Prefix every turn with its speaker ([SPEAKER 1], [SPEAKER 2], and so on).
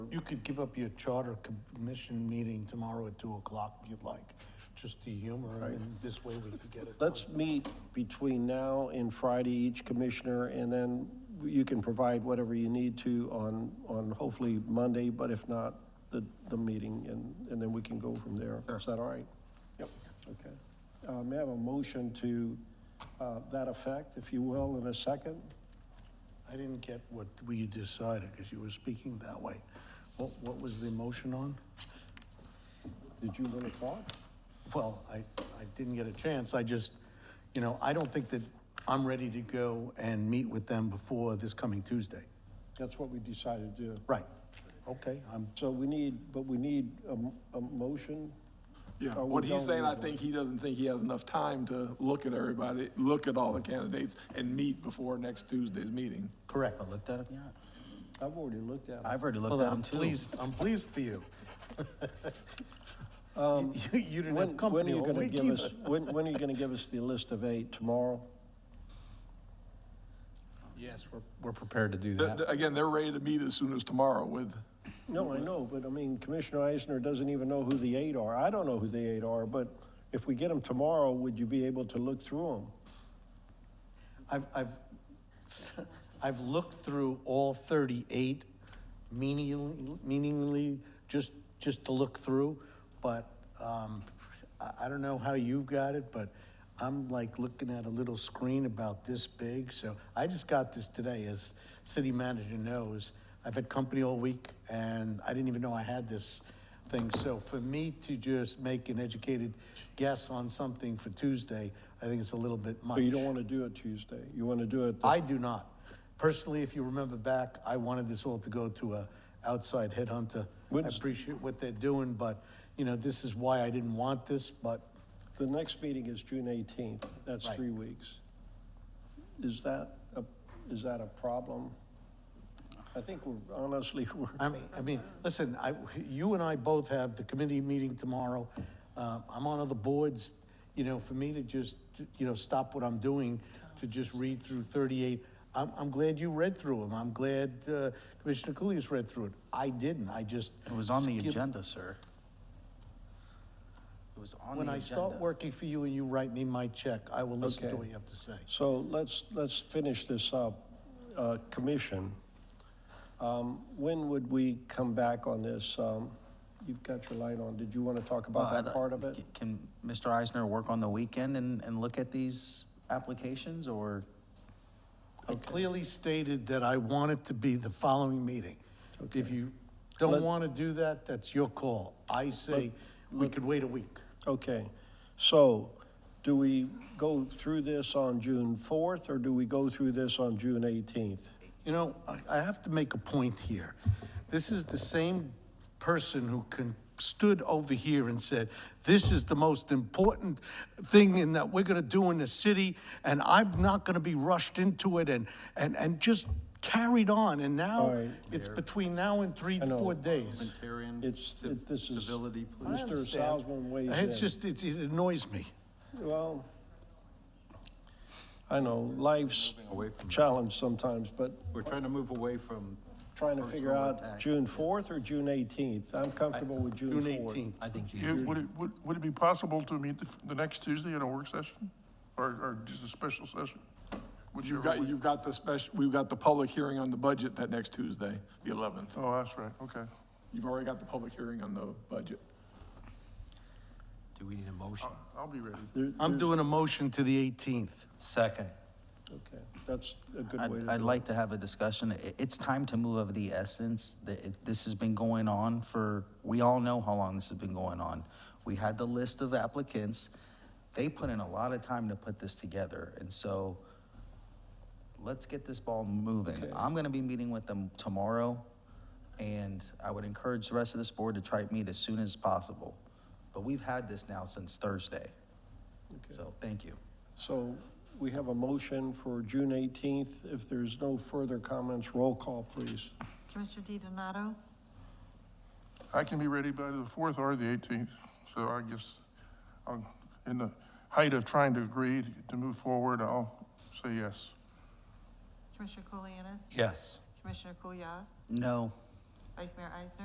[SPEAKER 1] You could give up your charter commission meeting tomorrow at two o'clock if youuld like, just to humor, him, and this way we could get it. done.
[SPEAKER 2] Let's meet between now and Friday, each commissioner, and then you can provide whatever you need to on, on hopefully Monday, but if not, the, the meeting, and, and then we can go from there. Is that all right? Yep. Okay. Uh, May I have a motion to uh, that effect, if you will, in a second?
[SPEAKER 1] I didn't get what we decided, because you were speaking that way. What, what was the motion on?
[SPEAKER 2] Did you want to talk?
[SPEAKER 1] Well, I, I didn't get a chance, I just, you know, I don't think that I'm ready to go and meet with them before this coming Tuesday.
[SPEAKER 2] That's what we decided to do.
[SPEAKER 1] Right, okay, I'm,
[SPEAKER 2] So we need, but we need a, m- a motion?
[SPEAKER 3] Yeah,
[SPEAKER 2] Or Uh, we
[SPEAKER 3] what
[SPEAKER 2] don't
[SPEAKER 3] he's saying,
[SPEAKER 2] need
[SPEAKER 3] I
[SPEAKER 2] one?
[SPEAKER 3] think he doesn't think he has enough time to look at everybody, look at all the candidates and meet before next Tuesday's meeting.
[SPEAKER 1] correct.
[SPEAKER 4] I looked at it yet.
[SPEAKER 2] I've already looked at it.
[SPEAKER 4] I've already
[SPEAKER 1] Well,
[SPEAKER 4] looked
[SPEAKER 1] then
[SPEAKER 4] at them
[SPEAKER 1] I'm
[SPEAKER 4] too.
[SPEAKER 1] pleased, I'm pleased for you. You, you didn't have
[SPEAKER 2] Um, When,
[SPEAKER 1] company
[SPEAKER 2] when are you
[SPEAKER 1] all
[SPEAKER 2] gonna
[SPEAKER 1] week
[SPEAKER 2] give
[SPEAKER 1] either.
[SPEAKER 2] us, when, when are you gonna give us the list of eight, tomorrow?
[SPEAKER 1] Yes, we're
[SPEAKER 4] We're prepared to do
[SPEAKER 3] The-
[SPEAKER 4] that.
[SPEAKER 3] the- Again, they're ready to meet as soon as tomorrow with,
[SPEAKER 2] No, I know, but I mean, Commissioner Eisner doesn't even know who the eight are. I don't know who the eight are, but if we get them tomorrow, would you be able to look through
[SPEAKER 1] I've, I've, I've looked through all 38 meaningly, meaningly, just, just to look through, but um, I, I don't know how you've got it, but I'm like looking at a little screen about this big, so I just got this today, as city manager knows. I've had company all week, and I didn't even know I had this thing, so for me to just make an educated guess on something for Tuesday, I think it's a little bit
[SPEAKER 2] them?
[SPEAKER 1] much.
[SPEAKER 2] So you don't wanna do it Tuesday, you wanna do it, the-
[SPEAKER 1] I do not. Personally, if you remember back, I wanted this all to go to a outside headhunter. I
[SPEAKER 2] Wouldn't-
[SPEAKER 1] appreciate what they're doing, but, you know, this is why I didn't want this, but
[SPEAKER 2] the next meeting is June eighteenth, that's
[SPEAKER 1] Right.
[SPEAKER 2] three weeks. Is that, a- is that a problem? I think we're, honestly, we're,
[SPEAKER 1] I mean, I mean, listen, I, you and I both have the committee meeting tomorrow. Uh, I'm on other boards, you know, for me to just, you know, stop what I'm doing to just read through 38. I'm, I'm glad you read through them. I'm glad uh, Commissioner Cooley's read through it. I didn't. I just.
[SPEAKER 4] It was on the
[SPEAKER 1] skipped-
[SPEAKER 4] agenda, sir. It was on the
[SPEAKER 1] When
[SPEAKER 4] agenda.
[SPEAKER 1] I start working for you and you write me my check, I will listen to
[SPEAKER 2] Okay.
[SPEAKER 1] what you have to say.
[SPEAKER 2] So let's, let's finish this up. Uh, Commission, um, when would we come back on this? Um, You've got your light on. Did you want to talk about
[SPEAKER 4] Well,
[SPEAKER 2] that
[SPEAKER 4] I-
[SPEAKER 2] part of it?
[SPEAKER 4] uh, Can Mr. Eisner work on the weekend and, and look at these applications or?
[SPEAKER 1] I clearly stated that I want it to be the following meeting. If you don't
[SPEAKER 2] Let-
[SPEAKER 1] want to do that, that's your call. I say we could wait a week.
[SPEAKER 2] Okay, so do we go through this on June 4th, or do we go through this on June 18th?
[SPEAKER 1] You know, I, I have to make a point here. This is the same person who con- stood over here and said, this is the most important thing in that we're gonna do in the city, and I'm not gonna be rushed into it, and, and, and just carried on, and
[SPEAKER 2] All
[SPEAKER 1] now
[SPEAKER 2] right.
[SPEAKER 1] it's between now and three,
[SPEAKER 2] I know.
[SPEAKER 1] four days.
[SPEAKER 5] Parliamentarian,
[SPEAKER 2] It's,
[SPEAKER 5] civ-
[SPEAKER 2] it- this is.
[SPEAKER 5] civility, please.
[SPEAKER 1] I
[SPEAKER 2] Mr.
[SPEAKER 1] understand.
[SPEAKER 2] Salzman weighs in.
[SPEAKER 1] It's just, it it annoys me.
[SPEAKER 2] Well, I know, life's
[SPEAKER 5] away from this.
[SPEAKER 2] challenged sometimes, but
[SPEAKER 5] We're trying to move away from.
[SPEAKER 2] trying to figure
[SPEAKER 5] personal
[SPEAKER 2] out
[SPEAKER 5] attacks.
[SPEAKER 2] June 4th or June 18th. I'm comfortable with June
[SPEAKER 1] June
[SPEAKER 2] 4th.
[SPEAKER 1] 18th.
[SPEAKER 4] I think
[SPEAKER 6] Yeah, Would it, would, would it be possible to meet the, f- the next Tuesday in a work session? Or, or just a special session?
[SPEAKER 3] you've
[SPEAKER 6] Whichever
[SPEAKER 3] got,
[SPEAKER 6] we-
[SPEAKER 3] you've got the special, we've got the public hearing on the budget that next Tuesday, the 11th.
[SPEAKER 6] Oh, that's right, okay.
[SPEAKER 3] You've already got the public hearing on the budget.
[SPEAKER 5] Do we need a motion?
[SPEAKER 6] I'll- I'll be ready.
[SPEAKER 2] There-
[SPEAKER 1] I'm
[SPEAKER 2] there's-
[SPEAKER 1] doing a motion to the 18th.
[SPEAKER 4] Second.
[SPEAKER 2] Okay, that's a good way to
[SPEAKER 4] I'd,
[SPEAKER 2] do it.
[SPEAKER 4] I'd like to have a discussion. I- It's time to move of the essence. The- it- This has been going on for, we all know how long this has been going on. We had the list of applicants. They put in a lot of time to put this together, and so let's get this ball moving. I'm gonna be meeting with them tomorrow, and I would encourage the rest of this board to try to meet as soon as possible. But we've had this now since Thursday. So, thank you.
[SPEAKER 2] So we have a motion for June 18th. If there's no further comments, roll call, please.
[SPEAKER 7] Commissioner DiDonato?
[SPEAKER 6] I can be ready by the fourth or the eighteenth, so I guess, I'm in the height of trying to agree to move forward, I'll say yes.
[SPEAKER 7] Commissioner Kulianis?
[SPEAKER 4] Yes.
[SPEAKER 7] Commissioner Kulyas?
[SPEAKER 4] No.
[SPEAKER 7] Vice Mayor Eisner?